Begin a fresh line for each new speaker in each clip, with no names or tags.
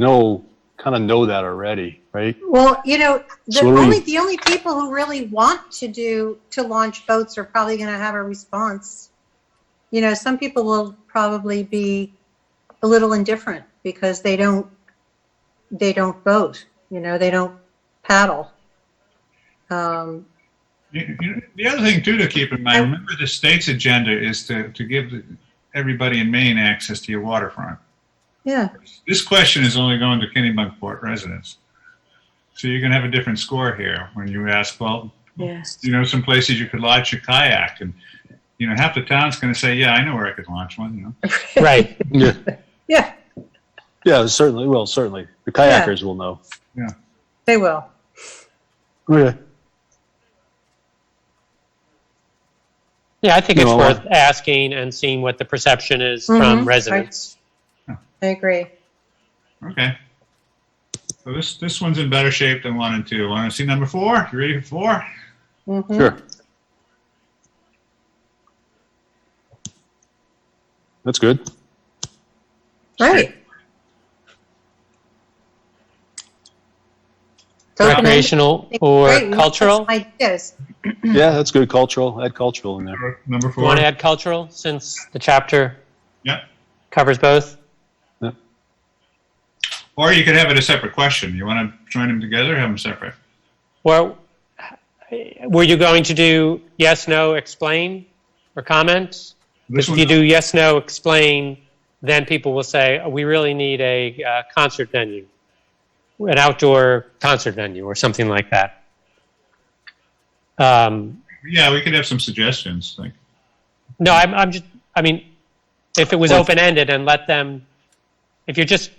know, kind of know that already, right?
Well, you know, the
So what do
only,
we-
the only people who really want to do, to launch boats are probably going to have a response. You know, some people will probably be a little indifferent because they don't, they don't boat, you know, they don't paddle. Um,
You- you- The other thing too to keep in mind, remember the state's agenda is to, to give everybody in Maine access to your waterfront.
yeah,
This question is only going to Kennebunkport residents. So you're gonna have a different score here when you ask, well,
Yes.
you know, some places you could launch a kayak and, you know, half the town's gonna say, yeah, I know where I could launch one, you know.
Right.
Yeah,
yeah,
yeah, certainly. Well, certainly the
Yeah.
kayakers will know.
they will.
Okay.
Yeah, I think it's
No, I-
worth asking and seeing what the perception is
Mhm,
from
right.
residents.
I agree.
Okay. So this, this one's in better shape than one and two. Want to see number four? You ready for four?
Mhm.
Sure. That's good.
Right. Don't know.
Recreational or
Right, lots of
cultural?
Ideas.
Yeah, that's good. Cultural, add cultural in there.
Number
You
four.
want to add cultural since the chapter
Yep.
covers both?
Or you could have it a separate question. You want to join them together, have them separate.
Well, were you going to do yes, no, explain or comment?
This
If
one,
you do yes, no, explain, then people will say, "Oh, we really need a uh, concert venue, an outdoor concert venue or something like that. Um,
yeah, we could have some suggestions. Like,
No, I'm, I'm just, I mean, if it was
Well-
open ended and let them, if you're just,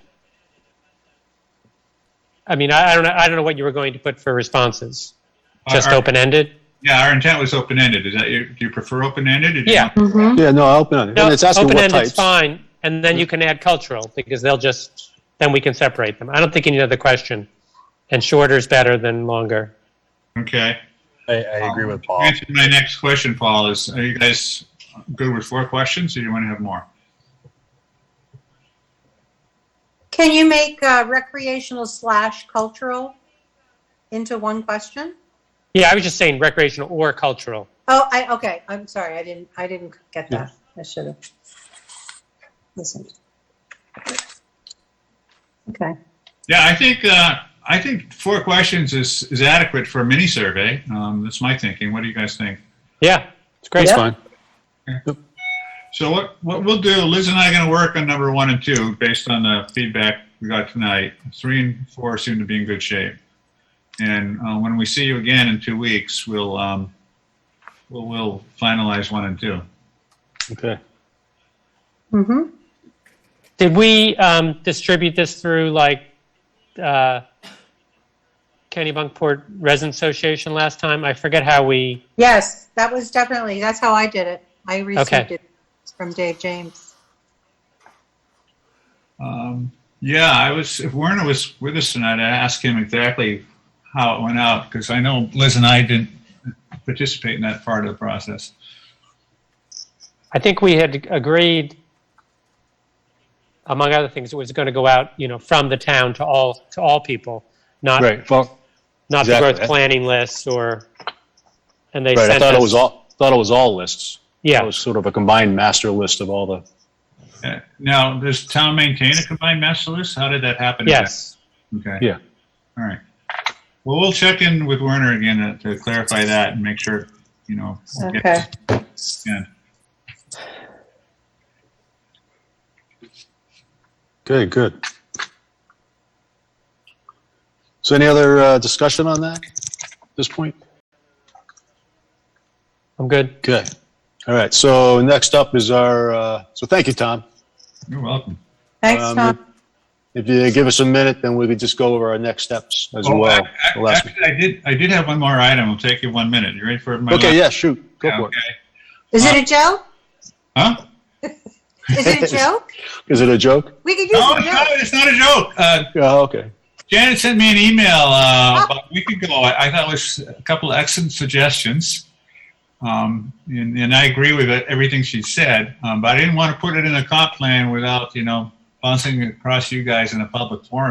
I mean, I, I don't know, I don't know what you were going to put for responses. Just
our,
open ended.
Yeah, our intent was open ended. Is that your, do you prefer open ended?
Yeah.
Mhm.
Yeah, no, I'll open it.
No,
and it's asking
open
what
ended's
types.
fine, and then you can add cultural because they'll just then we can separate them. I don't think you need another question, and shorter is better than longer.
Okay.
I, I
Um,
agree with Paul.
Answer to my next question, Paul, is are you guys good with four questions or do you want to have more?
Can you make uh, recreational slash cultural into one question?
Yeah, I was just saying recreational or cultural.
Oh, I, okay, I'm sorry, I didn't, I didn't get that. I should have. listened. Okay,
Yeah, I think uh, I think four questions is, is adequate for a mini survey. Um, that's my thinking. What do you guys think?
Yeah, it's great.
That's
Yeah.
fine.
So what, what we'll do, Liz and I are going to work on number one and two based on the feedback we got tonight. Three and four seem to be in good shape. And uh, when we see you again in two weeks, we'll, um, we'll, we'll finalize one and two.
Okay.
mm-hmm,
Did we um, distribute this through like uh, Kennebunkport Resin Association last time? I forget how we.
yes, that was definitely, that's how I did it. I received
Okay.
it from Dave James.
Um, yeah, I was, if Werner was with us tonight, I asked him exactly how it went out because I know Liz and I didn't participate in that part of the process.
I think we had agreed, among other things, it was going to go out, you know, from the town to all to all people, not
Right. Well,
not
Exactly.
the growth planning list or. And they
right.
sent
I thought
us,
it was all thought it was all lists. It
Yeah,
was sort of a combined master list of all the.
Uh, Now, does town maintain a combined master list? How did that happen?
yes.
Okay.
Yeah.
All right. Well, we'll check in with Werner again to- to clarify that and make sure, you know. we'll get-
Okay.
Yeah.
Okay. Good. So, any other uh, discussion on that at this point?
I'm good.
Okay. All right. So next up is our. Uh, so thank you, Tom.
You're welcome.
Thanks,
Um,
Tom.
If you give us a minute, then we could just go over our next steps as
Oh,
well.
ac- ac-
The last-
Actually, I did, I did have one more item. It'll take you one minute. You ready for my?
okay.
last-
Yeah. Shoot. Go
Yeah,
for it.
okay.
Is it a joke?
Huh?
Is it a joke?
Is it a joke?
We could use
No,
a
it's not,
joke.
it's not a joke. Uh,
Oh, okay.
Janet sent me an email uh, about a week ago. I, I thought it was a couple of excellent suggestions. Um, and, and I agree with it, everything she said, um, but I didn't want to put it in a comp plan without, you know, bouncing it across you guys in a public forum.